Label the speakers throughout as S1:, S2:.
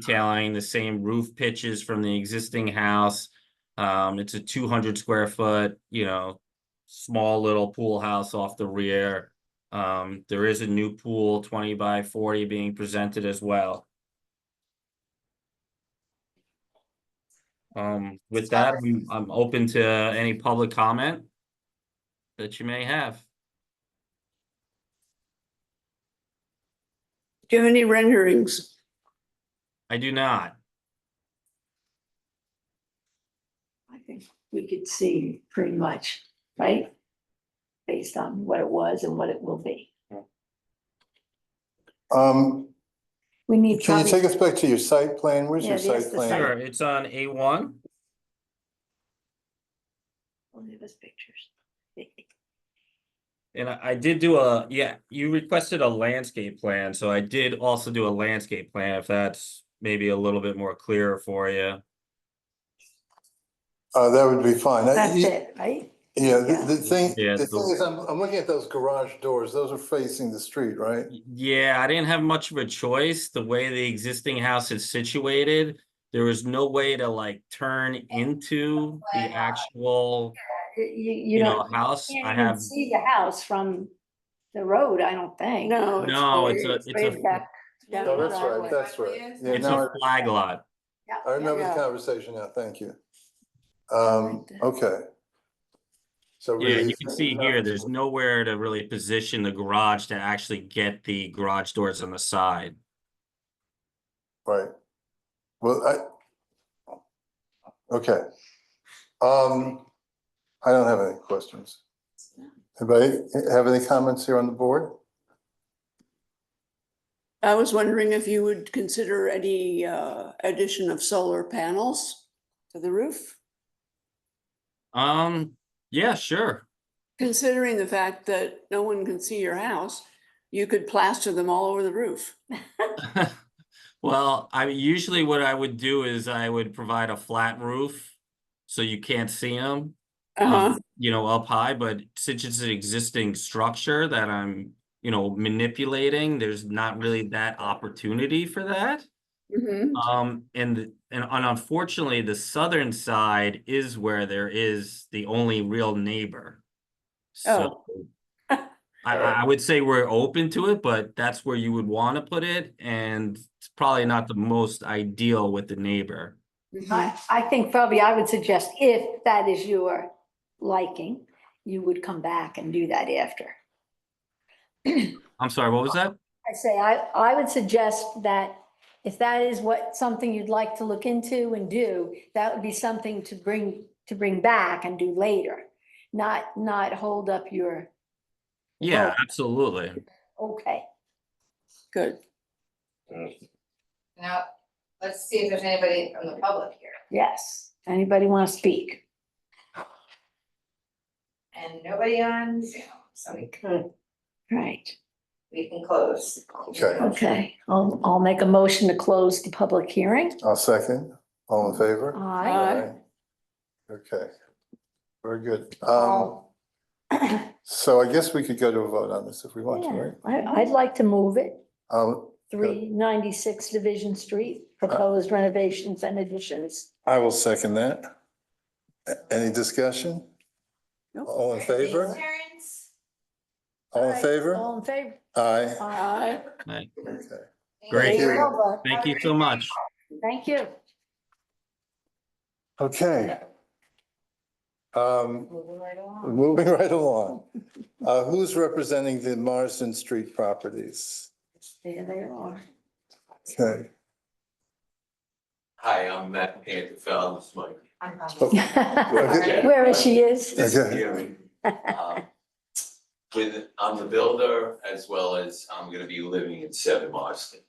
S1: detailing the same roof pitches from the existing house. Um, it's a two hundred square foot, you know, small little pool house off the rear. Um, there is a new pool, twenty by forty being presented as well. Um, with that, I'm, I'm open to any public comment that you may have.
S2: Do you have any renderings?
S1: I do not.
S2: I think we could see pretty much, right? Based on what it was and what it will be.
S3: Um,
S2: We need.
S3: can you
S2: probably-
S3: take us back to your site plan? Where's
S2: Yeah,
S3: your
S2: there's
S3: site
S2: the
S3: plan?
S1: Sure, it's on A one.
S2: We'll give us pictures.
S1: And I, I did do a, yeah, you requested a landscape plan, so I did also do a landscape plan, if that's maybe a little bit more clear for you.
S3: Uh, that would be fine. I-
S2: That's
S3: you-
S2: it, right?
S3: Yeah,
S2: Yeah.
S3: the, the thing,
S1: Yeah,
S3: the thing
S1: the-
S3: is, I'm, I'm looking at those garage doors. Those are facing the street, right?
S1: Yeah, I didn't have much of a choice, the way the existing house is situated, there was no way to like turn into the actual,
S2: You, you
S1: you know,
S2: don't,
S1: house. I
S2: can't even
S1: have,
S2: see the house from the road, I don't think.
S4: No.
S1: no, it's a, it's
S2: Way
S1: a,
S2: back down
S3: No,
S2: the
S3: Oh, that's right,
S2: driveway.
S3: that's right. Yeah,
S1: it's
S3: now
S1: a flag lot.
S2: Yeah,
S3: I, I remember the
S4: yeah.
S3: conversation now. Thank you. Um,
S2: Right there.
S3: okay. So.
S1: Yeah,
S3: really-
S1: you can see here, there's nowhere to really position the garage to actually get the garage doors on the side.
S3: Right. Well, I. Okay. Um, I don't have any questions. Anybody have any comments here on the board?
S4: I was wondering if you would consider any uh, addition of solar panels to the roof?
S1: Um, yeah, sure.
S4: Considering the fact that no one can see your house, you could plaster them all over the roof.
S1: Well, I usually what I would do is I would provide a flat roof so you can't see them,
S4: Uh-huh.
S1: you know, up high, but since it's an existing structure that I'm, you know, manipulating, there's not really that opportunity for that.
S4: Mhm.
S1: Um, and, th- and and unfortunately, the southern side is where there is the only real neighbor. So. I, I I would say we're open to it, but that's where you would want to put it, and it's probably not the most ideal with the neighbor.
S4: Mhm.
S2: I, I think probably I would suggest if that is your liking, you would come back and do that after.
S1: I'm sorry, what was that?
S2: I say, I, I would suggest that if that is what, something you'd like to look into and do, that would be something to bring, to bring back and do later. Not, not hold up your,
S1: Yeah, absolutely.
S2: okay.
S4: Good.
S5: Now, let's see if there's anybody from the public here,
S2: Yes. Anybody want to speak?
S5: and nobody on Zoom, so we can,
S2: Right.
S5: we can close.
S3: Okay.
S2: Okay. I'll, I'll make a motion to close the public hearing.
S3: I'll second. All in favor?
S2: Aye.
S4: Aye.
S3: Okay, very good. Um, so I guess we could go to a vote on this if we want to,
S2: Yeah,
S3: right?
S2: I, I'd like to move it.
S3: Um,
S2: Three ninety-six Division Street, proposed renovations and additions.
S3: I will second that. A- Any discussion?
S4: Nope.
S3: All in favor?
S5: Terrence?
S3: All in favor?
S2: All in favor?
S3: Aye.
S4: Aye.
S1: Like,
S3: Okay.
S1: Great.
S3: you.
S2: Well,
S1: Thank you so much.
S2: but Thank you.
S3: Okay. Um,
S5: Moving right along.
S3: moving right along. Uh, who's representing the Marsden Street properties?
S2: There they are.
S3: Okay,
S6: Hi, I'm Matt Pantafel, this is my.
S5: I'm
S3: Oh.
S5: probably-
S3: Okay.
S2: Wherever she is.
S6: this is
S3: Okay.
S6: Gary. Um, With, I'm the builder as well as I'm gonna be living in Seven Marston.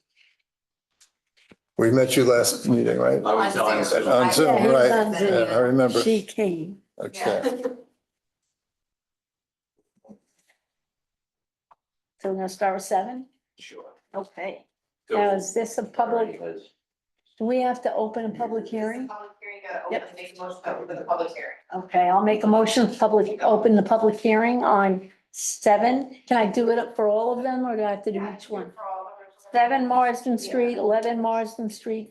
S3: we met you last meeting, right?
S6: I was on Zoom.
S3: On Zoom,
S2: Yeah, he's
S3: right.
S2: on Zoom.
S3: Yeah, I remember.
S2: She came.
S3: Okay.
S2: So we're gonna start with seven?
S6: Sure.
S2: Okay.
S6: So-
S2: Now, is this a public,
S6: Because-
S2: do we have to open a public hearing?
S5: Public hearing, gotta open, make a motion to open the public hearing.
S2: Okay, I'll make a motion, public, open the public hearing on seven. Can I do it up for all of them or do I have to do each one?
S5: For all of us.
S2: Seven Marsden Street, eleven Marsden Street,